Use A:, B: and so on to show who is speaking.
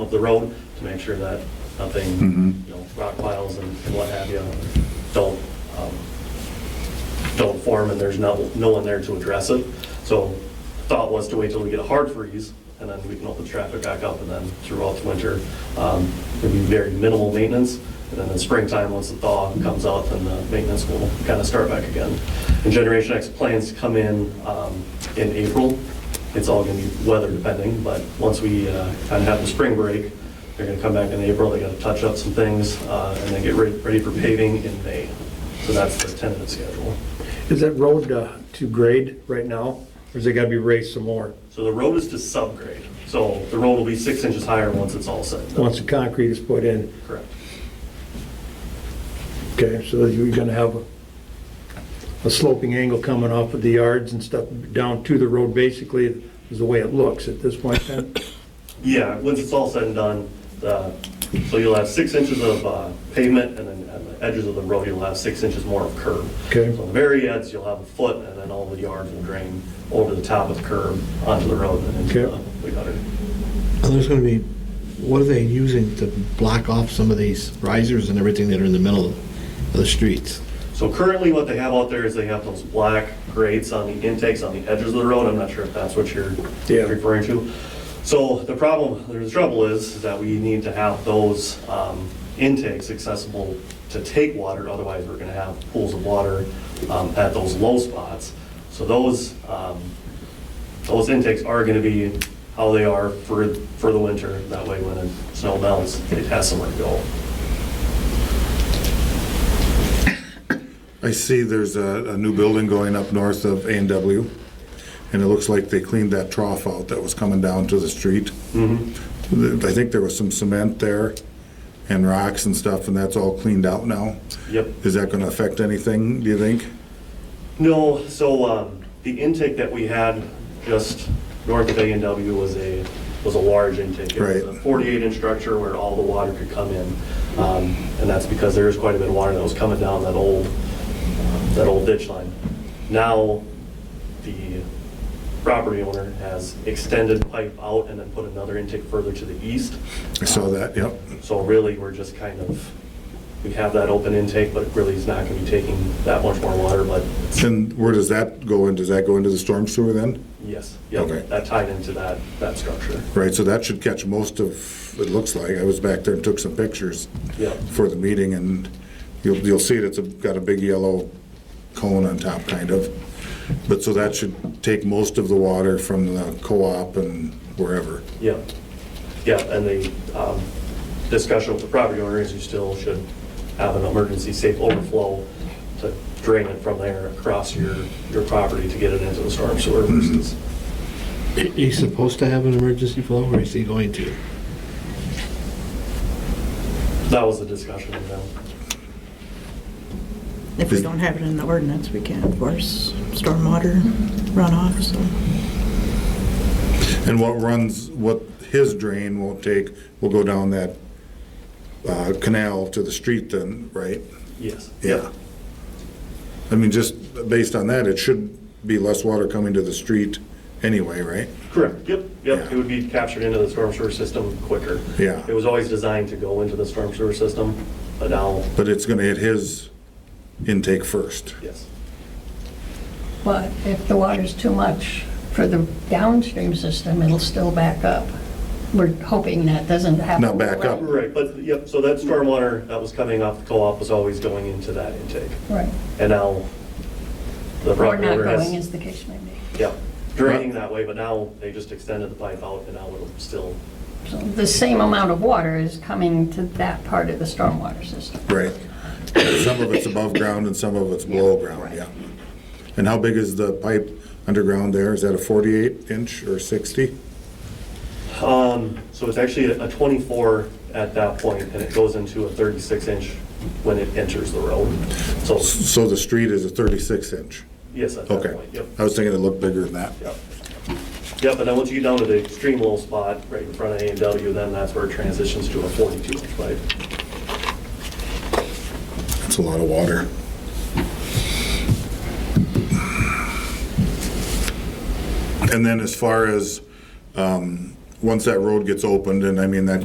A: of the road to make sure that nothing, you know, rock piles and and what have you don't, um, don't form and there's no, no one there to address it. So thought was to wait till we get a hard freeze and then we can open the traffic back up and then throughout the winter, um, there'll be very minimal maintenance. And then in springtime, once the thaw comes out, then the maintenance will kind of start back again. And Generation X plans to come in, um, in April. It's all going to be weather depending, but once we, uh, kind of have the spring break, they're going to come back in April. They got to touch up some things, uh, and then get ready, ready for paving in May. So that's the tentative schedule.
B: Is that road uh, to grade right now, or is it gotta be raised some more?
A: So the road is to subgrade, so the road will be six inches higher once it's all said and done.
B: Once the concrete is put in,
A: Correct.
B: okay, so you're gonna have a- a sloping angle coming off of the yards and stuff down to the road, basically, is the way it looks at this point then?
A: Yeah, once it's all said and done, the- so you'll have six inches of uh, pavement, and then at the edges of the road, you'll have six inches more of curb.
B: Okay.
A: So on the very ends, you'll have a foot, and then all the yards will drain over the top of the curb onto the road and into
B: Okay.
A: the- the gutter.
C: And there's gonna be, what are they using to block off some of these risers and everything that are in the middle of the streets?
A: So currently, what they have out there is they have those black grates on the intakes on the edges of the road. I'm not sure if that's what you're
B: Yeah.
A: referring to. So the problem, the trouble is, is that we need to have those um, intakes accessible to take water, otherwise we're gonna have pools of water um, at those low spots. So those, um, those intakes are gonna be how they are for, for the winter. That way, when the snow melts, it has somewhere to go.
D: I see there's a, a new building going up north of A and W, and it looks like they cleaned that trough out that was coming down to the street. Th- I think there was some cement there and rocks and stuff, and that's all cleaned out now.
A: Yep.
D: Is that gonna affect anything, do you think?
A: No, so um, the intake that we had just north of A and W was a, was a large intake. It was
D: Right.
A: a 48-inch structure where all the water could come in. Um, And that's because there is quite a bit of water that was coming down that old, that old ditch line. Now, the property owner has extended pipe out and then put another intake further to the east.
D: I saw that, yep.
A: So really, we're just kind of, we have that open intake, but it really is not going to be taking that much more water, but it's
D: And where does that go in? Does that go into the storm sewer then?
A: Yes, yeah,
D: Okay.
A: that tied into that, that structure.
D: Right, so that should catch most of, it looks like, I was back there and took some pictures
A: Yeah.
D: for the meeting, and you'll, you'll see it, it's a- got a big yellow cone on top, kind of. But, so that should take most of the water from the co-op and wherever.
A: Yeah, yeah, and the um, discussion with the property owner is you still should have an emergency safe overflow to drain it from there across your, your property to get it into the storm sewer
D: Mm-hmm.
A: versus,
C: Are you supposed to have an emergency flow, or is he going to?
A: that was the discussion with them.
E: If we don't have it in the ordinance, we can't enforce stormwater runoff, so.
D: And what runs, what his drain won't take, will go down that uh, canal to the street then, right?
A: Yes.
D: Yeah. I mean, just based on that, it should be less water coming to the street anyway, right?
A: Correct, yep, yep, it would be captured into the storm sewer system quicker.
D: Yeah.
A: It was always designed to go into the storm sewer system, but now,
D: But it's gonna hit his intake first.
A: yes.
F: But if the water's too much for the downstream system, it'll still back up. We're hoping that doesn't happen.
D: Not back up.
A: Right, but, yep, so that stormwater that was coming off the co-op was always going into that intake.
F: Right.
A: And now the
F: Or
A: property
F: not
A: owner
F: going,
A: has,
F: as the case may be.
A: yeah, draining that way, but now they just extended the pipe out and now it'll still,
F: So the same amount of water is coming to that part of the stormwater system.
D: Right. Some of it's above ground and some of it's below ground, yeah. And how big is the pipe underground there? Is that a forty-eight inch or sixty?
A: um, so it's actually a 24 at that point and it goes into a 36 inch when it enters the road. So,
D: So the street is a thirty-six inch.
A: yes, at that
D: Okay.
A: point, yep,
D: I was thinking it looked bigger than that.
A: yep. Yep, and then once you get down to the extreme little spot right in front of A and W, then that's where it transitions to a 42 inch pipe.
D: It's a lot of water. And then as far as, um, once that road gets opened, and I mean, that